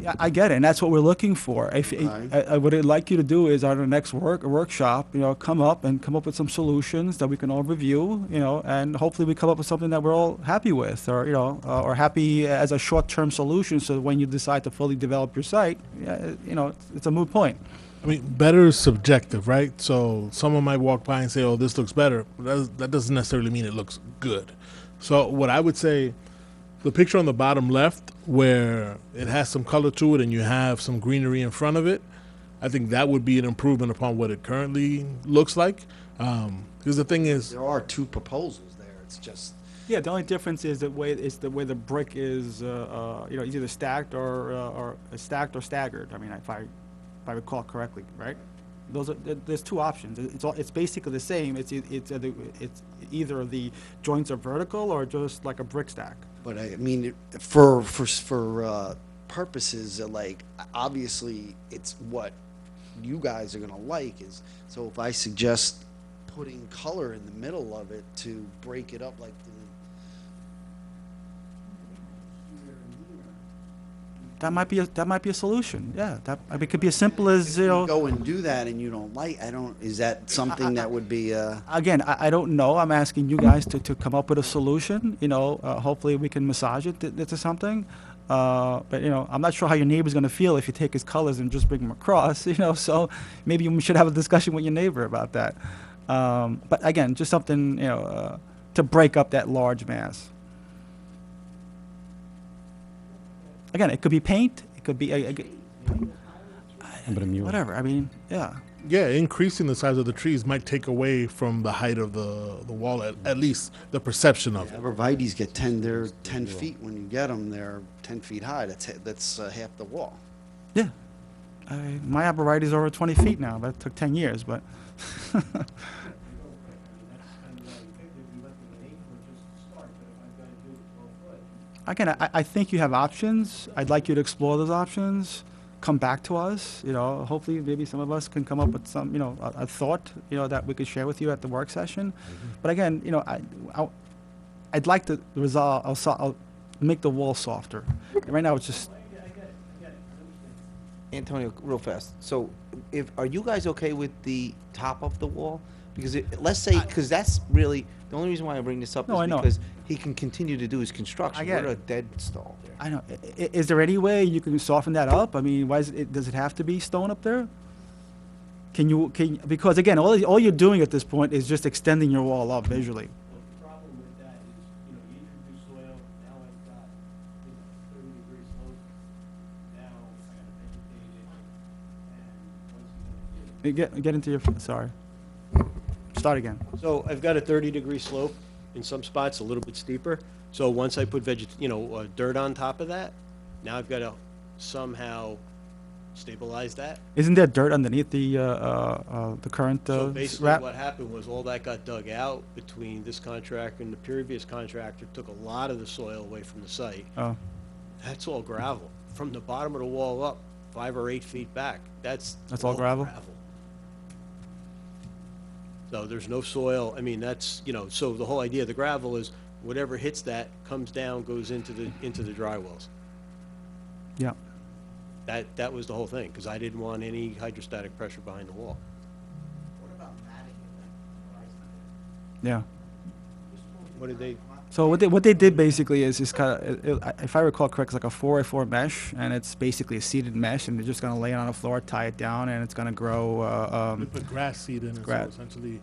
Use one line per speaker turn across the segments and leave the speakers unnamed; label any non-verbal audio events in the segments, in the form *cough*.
Yeah, I get it, and that's what we're looking for. If,
Okay.
I, I, what I'd like you to do is, at our next work, workshop, you know, come up and come up with some solutions that we can all review, you know, and hopefully we come up with something that we're all happy with, or, you know, uh, or happy as a short-term solution, so that when you decide to fully develop your site, yeah, you know, it's, it's a moot point.
I mean, better is subjective, right? So someone might walk by and say, "Oh, this looks better." But that, does- that doesn't necessarily mean it looks good. So what I would say, the picture on the bottom left, where it has some color to it and you have some greenery in front of it, I think that would be an improvement upon what it currently looks like. Because the thing is,
There are two proposals there. It's just,
Yeah, the only difference is the way is the way the brick is, uh, uh, you know, it's either stacked or uh, or stacked or staggered. I mean, if I if I recall correctly, right? Those are there- there's two options. It- It's all, it's basically the same. It's e- it's either, it's either the joints are vertical or just like a brick stack.
but I mean, it- for, for, for uh, purposes of like, obviously, it's what you guys are gonna like is, so if I suggest putting color in the middle of it to break it up like the,
That might be a, that might be a solution. Yeah, that I mean, it could be as simple as you know.
go and do that and you don't like, I don't, is that something that would be, uh?
Again, I, I don't know. I'm asking you guys to, to come up with a solution. You know, uh, hopefully we can massage it to, to something. Uh, but you know, I'm not sure how your neighbor's gonna feel if you take his colors and just bring them across. *laughs* You know, so maybe we should have a discussion with your neighbor about that. Um, but again, just something you know uh, to break up that large mass. Again, it could be paint. It could be a, whatever. I mean, yeah.
yeah, increasing the size of the trees might take away from the height of the the wall, at, at least the perception of it.
Arborvitae's get ten, they're ten feet when you get them, they're ten feet high, that's, ha- that's uh, half the wall.
Yeah. I, my arborvitae is over 20 feet now. That took 10 years, but *laughs* again, I, I think you have options. I'd like you to explore those options. Come back to us. You know, hopefully, maybe some of us can come up with some, you know, a, a thought, you know, that we could share with you at the work session. But again, you know, I, I, I'd like to resolve. I'll, so- I'll make the wall softer. Right now, it's just
Antonio, real fast. So, if are you guys okay with the top of the wall? Because it, let's say, because that's really the only reason why I bring this up
No,
is
I know.
because he can continue to do his construction.
I get
We're
it.
at a dead stall there.
I don't, i- i- is there any way you can soften that up? I mean, why is it, does it have to be stone up there? Can you, can, because again, all, all you're doing at this point is just extending your wall up visually.
But the problem with that is, you know, you introduce soil, now I've got, you know, thirty degree slope, now I gotta vegetate it, and once you get
Uh,
it,
Get, get into your, sorry. Start again.
So I've got a 30-degree slope, in some spots, a little bit steeper. So once I put veget, you know, uh, dirt on top of that, now I've got to somehow stabilize that.
Isn't there dirt underneath the, uh, uh, uh, the current, uh,
So
s-
basically,
wrap?
what happened was all that got dug out between this contractor and the previous contractor, took a lot of the soil away from the site.
Oh,
That's all gravel. From the bottom of the wall up, five or eight feet back, that's.
That's all gravel?
So there's no soil, I mean, that's, you know, so the whole idea of the gravel is whatever hits that comes down, goes into the, into the dry wells.
yeah.
That, that was the whole thing, because I didn't want any hydrostatic pressure behind the wall.
Yeah.
What did they,
So what they, what they did basically is, is kind of, if I recall correct, it's like a four by four mesh, and it's basically a seeded mesh, and they're just gonna lay it on the floor, tie it down, and it's gonna grow, uh,
We
um,
put grass seed in it,
Gra-
so essentially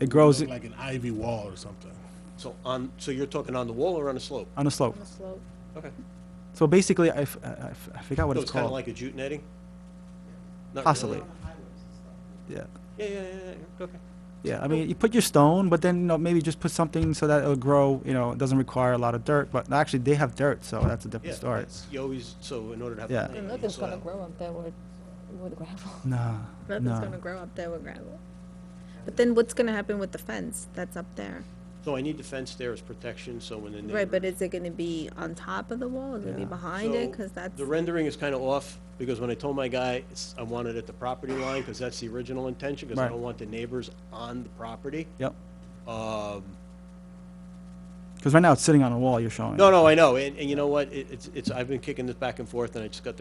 it grows
look like an ivy wall or something.
so on, so you're talking on the wall or on a slope?
on a slope.
on the slope.
Okay.
So basically, I, f- I- I f- I forgot what
So
it's
it's kind
called.
of like a jute netting? Not really.
Possibly. Yeah,
Yeah, yeah, yeah, yeah, okay.
yeah. I mean, you put your stone, but then you know, maybe just put something so that it'll grow. You know, it doesn't require a lot of dirt. But actually, they have dirt, so that's a
Yeah,
different story.
that's- You always, so in order to have.
Yeah.
planting,
And
you need
nothing's gonna
soil.
grow up there with, with gravel. *laughs*
Nah,
Nothing's
nah.
gonna grow up there with gravel. But then what's gonna happen with the fence that's up there?
So I need the fence there as protection, so when the neighbor.
Right, but is it gonna be on top of the wall? Is it gonna be
Yeah.
behind it?
So
Cause that's,
The rendering is kind of off, because when I told my guy, it's- I want it at the property line, because that's the original intention, because I
Right.
don't want the neighbors on the property.
Yep.
Um,
Because right now it's sitting on a wall. You're showing.
no, no, I know, and, and you know what, It- it's, it's, I've been kicking this back and forth, and I just got the